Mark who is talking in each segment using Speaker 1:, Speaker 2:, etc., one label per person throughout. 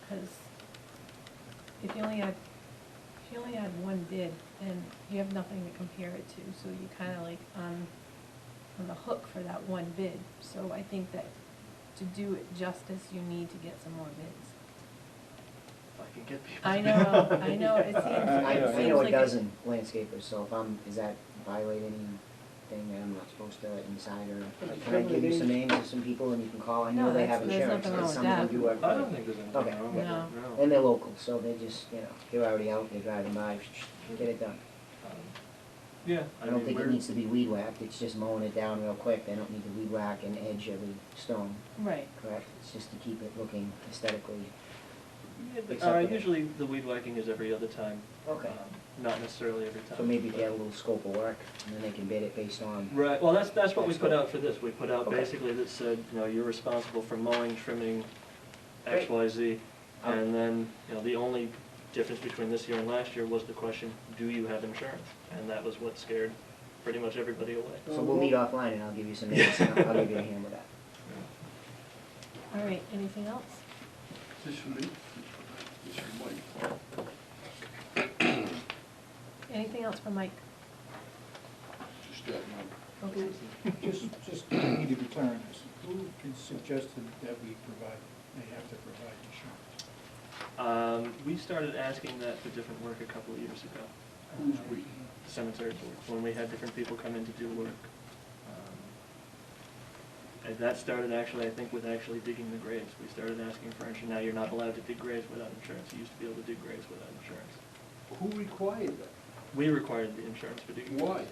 Speaker 1: because if you only had, if you only had one bid, then you have nothing to compare it to, so you kind of like on, on the hook for that one bid. So I think that to do it justice, you need to get some more bids.
Speaker 2: If I can get people.
Speaker 1: I know, I know, it seems,
Speaker 2: Uh,
Speaker 3: I,
Speaker 1: it
Speaker 3: I
Speaker 1: seems
Speaker 3: know
Speaker 1: like.
Speaker 3: a dozen landscapers, so if I'm, is that violate anything that I'm not supposed to inside or? Can I give you some names of some people and you can call, I
Speaker 1: No,
Speaker 3: know they
Speaker 1: that's-
Speaker 3: have
Speaker 1: there's
Speaker 3: insurance,
Speaker 1: nothing
Speaker 3: it's
Speaker 1: wrong with
Speaker 3: something we do every.
Speaker 2: I don't think there's
Speaker 3: Okay.
Speaker 2: anything wrong with it,
Speaker 1: No.
Speaker 2: no.
Speaker 3: And they're local, so they just, you know, they're already out, they're driving by, get it done.
Speaker 2: Um, Yeah, I
Speaker 3: I don't
Speaker 2: mean,
Speaker 3: think it
Speaker 2: we're,
Speaker 3: needs to be weed whacked, it's just mowing it down real quick, they don't need to weed whack and edge every stone,
Speaker 1: Right,
Speaker 3: correct? It's just to keep it looking aesthetically.
Speaker 2: yeah, but, uh,
Speaker 3: acceptable.
Speaker 2: usually the weed whacking is every other time.
Speaker 3: Okay.
Speaker 2: um, Not necessarily every time.
Speaker 3: So maybe
Speaker 2: but-
Speaker 3: get a little scope of work, and then they can bid it based on,
Speaker 2: Right, well, that's, that's what we
Speaker 3: That's
Speaker 2: put
Speaker 3: good.
Speaker 2: out for this, we put out
Speaker 3: Okay.
Speaker 2: basically that said, you know, you're responsible for mowing, trimming, X,
Speaker 3: Great.
Speaker 2: Y, Z.
Speaker 3: Um,
Speaker 2: And then, you know, the only difference between this year and last year was the question, do you have insurance? And that was what scared pretty much everybody away.
Speaker 3: so we'll meet offline and I'll give you some names, and I'll I'll give you a hand with that.
Speaker 1: all right, anything else?
Speaker 4: This is me. This is Mike.
Speaker 1: Anything else for Mike?
Speaker 4: Just that one.
Speaker 1: Okay,
Speaker 5: Just, just need to be clear on this. Who had suggested that we provide, they have to provide insurance?
Speaker 2: Um, we started asking that for different work a couple of years ago. Uh,
Speaker 4: Who's we?
Speaker 2: The Cemetery board, when we had different people come in to do work. Um, And that started actually, I think, with actually digging the graves. We started asking for insurance. Now you're not allowed to dig graves without insurance. You used to be able to dig graves without insurance.
Speaker 4: Who required that?
Speaker 2: We required the insurance for digging.
Speaker 4: Why?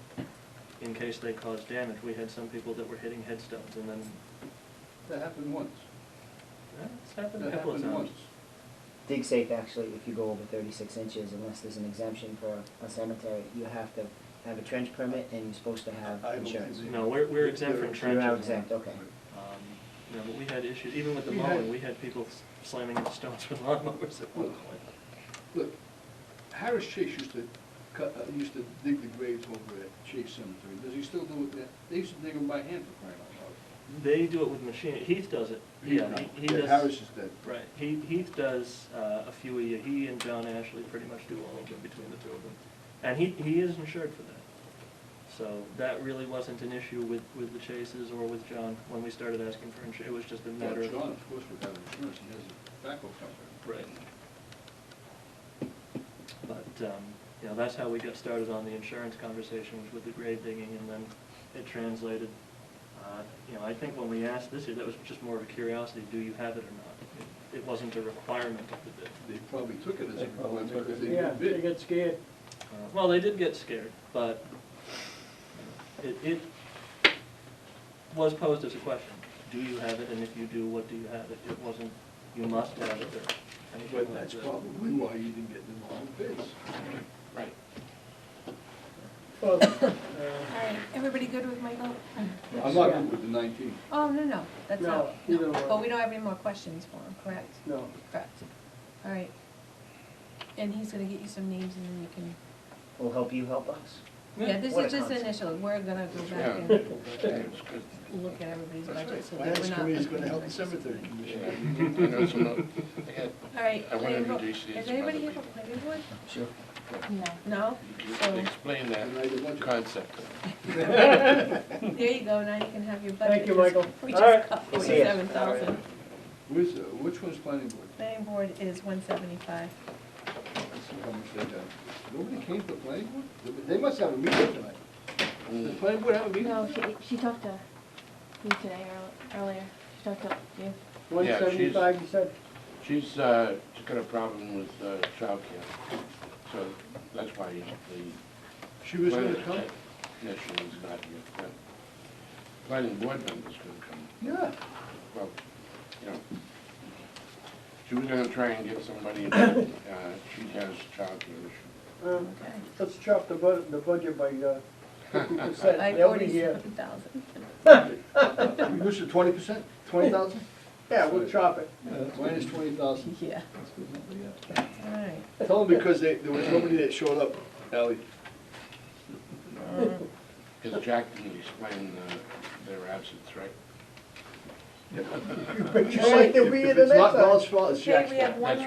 Speaker 2: In case they caused damage. We had some people that were hitting headstones and then,
Speaker 4: That happened once.
Speaker 2: eh, it's happened a
Speaker 4: That
Speaker 2: couple of
Speaker 4: happened
Speaker 2: times.
Speaker 4: once.
Speaker 3: Dig safe, actually, if you go over thirty-six inches, unless there's an exemption for a cemetery, you have to have a trench permit and you're supposed to have
Speaker 4: I don't think
Speaker 3: insurance.
Speaker 4: they-
Speaker 2: No, we're, we're exempt from
Speaker 3: You're
Speaker 2: trenches.
Speaker 3: out exempt, okay.
Speaker 2: Um, You know, but we had issues, even with the
Speaker 4: We had-
Speaker 2: mowing, we had people s- slamming into stones with lawnmowers at one point.
Speaker 4: Look, Harris Chase used to cut, uh, used to dig the graves over at Chase Cemetery. Does he still do it there? They used to dig them by hand for crying out loud.
Speaker 2: They do it with machine, Heath does it, yeah, he- he
Speaker 4: Yeah,
Speaker 2: does,
Speaker 4: Harris is dead.
Speaker 2: right, he, Heath does uh, a few a year, he and John Ashley pretty much do all of them between the two of them. And he, he is insured for that. So that really wasn't an issue with, with the Chases or with John when we started asking for insurance, it was just a
Speaker 4: Well,
Speaker 2: matter of.
Speaker 4: John, of course, would have insurance. He has a backhoe company.
Speaker 2: Right. But, um, you know, that's how we got started on the insurance conversations with the grave digging, and then it translated. Uh, You know, I think when we asked this year, that was just more of a curiosity, do you have it or not? It- It wasn't a requirement of the bid.
Speaker 4: They probably took it as a
Speaker 6: They probably
Speaker 4: requirement
Speaker 6: took it.
Speaker 4: because they
Speaker 6: Yeah,
Speaker 4: did
Speaker 6: they
Speaker 4: bid.
Speaker 6: get scared.
Speaker 2: Uh, Well, they did get scared, but it, it was posed as a question. Do you have it, and if you do, what do you have? It It wasn't, you must have it, or anything like
Speaker 4: But that's
Speaker 2: that.
Speaker 4: probably why you didn't get the long bids.
Speaker 2: Right.
Speaker 6: Well, uh,
Speaker 1: all right, everybody good with Michael?
Speaker 4: I'm not good with the nineteen.
Speaker 1: Oh, no, no, that's
Speaker 6: No,
Speaker 1: not,
Speaker 6: we don't
Speaker 1: no,
Speaker 6: want-
Speaker 1: but we don't have any more questions for him, correct?
Speaker 6: No,
Speaker 1: Correct, all right. And he's gonna get you some names and then you can,
Speaker 3: We'll help you help us.
Speaker 1: yeah, this
Speaker 3: What
Speaker 1: is
Speaker 3: a
Speaker 1: just
Speaker 3: concept.
Speaker 1: initial, we're gonna go back and
Speaker 4: That's
Speaker 1: look at everybody's budget so that we're
Speaker 4: Finance
Speaker 1: not.
Speaker 4: committee is gonna help the cemetery commission.
Speaker 7: I know some of- I had-
Speaker 1: All right.
Speaker 7: I wanna
Speaker 1: Landvo-
Speaker 7: introduce you to
Speaker 1: Is
Speaker 7: some
Speaker 1: anybody
Speaker 7: other
Speaker 1: here from planning board?
Speaker 3: Sure.
Speaker 1: No?
Speaker 7: you
Speaker 1: So,
Speaker 7: Explain
Speaker 4: And
Speaker 7: that
Speaker 4: I did a bunch of-
Speaker 7: concept.
Speaker 1: there you go, now you can have your budget.
Speaker 6: Thank you,
Speaker 1: Just-
Speaker 6: Michael.
Speaker 1: We
Speaker 6: All right.
Speaker 1: just cut forty-seven thousand.
Speaker 4: Where's, uh, which one's planning board?
Speaker 1: Planning board is one seventy-five.
Speaker 4: Let's see how much they got. Nobody came to the planning board? They- They must have a meeting tonight. Does the planning board have a meeting?
Speaker 8: No,
Speaker 4: tonight?
Speaker 8: she, she talked to me today earl- earlier. She talked to you.
Speaker 6: one
Speaker 7: Yeah, she's-
Speaker 6: seventy-five, you said?
Speaker 7: She's, uh, she's got a problem with uh, childcare, so that's why the.
Speaker 4: She was gonna come?
Speaker 7: No, she was not here, but planning board member's gonna come,
Speaker 4: Yeah.
Speaker 7: well, you know. She was gonna try and get somebody, uh, she has childcare issue.
Speaker 6: Um, Let's chop the bud, the budget by
Speaker 4: uh,
Speaker 6: fifty
Speaker 1: By
Speaker 6: percent, they'll be here.
Speaker 1: forty-seven thousand.
Speaker 4: Reduce to twenty percent, twenty thousand?
Speaker 6: Yeah, we'll chop it.
Speaker 4: Minus twenty thousand.
Speaker 1: Yeah. All right.
Speaker 4: Tell them because they, there was nobody that showed up, Ally.
Speaker 7: Because Jack didn't explain uh, their absence, right?
Speaker 6: Just like they'll be here the
Speaker 4: If it's
Speaker 6: next
Speaker 4: not
Speaker 6: time.
Speaker 4: Bill's fault, it's
Speaker 1: Okay,
Speaker 4: Jack's
Speaker 1: we
Speaker 4: fault.
Speaker 1: have one
Speaker 7: That's